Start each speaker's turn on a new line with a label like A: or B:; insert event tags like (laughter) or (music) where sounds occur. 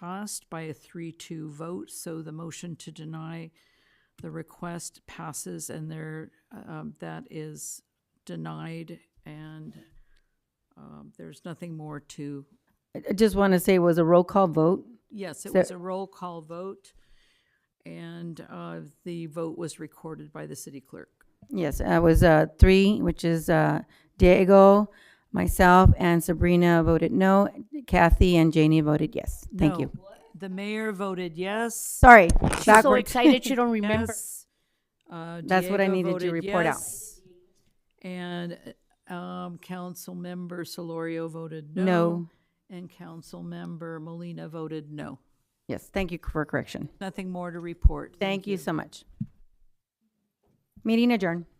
A: passed by a three-two vote, so the motion to deny the request passes and there, um, that is denied and, um, there's nothing more to,
B: I I just want to say it was a roll call vote.
A: yes, it
B: So-
A: was a roll call vote. And, uh, the vote was recorded by the city clerk.
B: Yes, it was uh, three, which is uh, Diego, myself, and Sabrina voted no. Kathy and Janie voted yes. Thank you.
A: No, The mayor voted yes.
B: Sorry,
C: She's so
B: backwards.
C: excited
A: (laughs)
C: she don't remember.
A: Yes. Uh,
B: That's what I
A: Diego
B: needed to
A: voted
B: report out.
A: yes. And um, Councilmember Solorio voted no.
B: No.
A: And Councilmember Molina voted no.
B: (laughs) Yes, thank you for correction.
A: Nothing more to report.
B: Thank you so much. Meeting adjourned.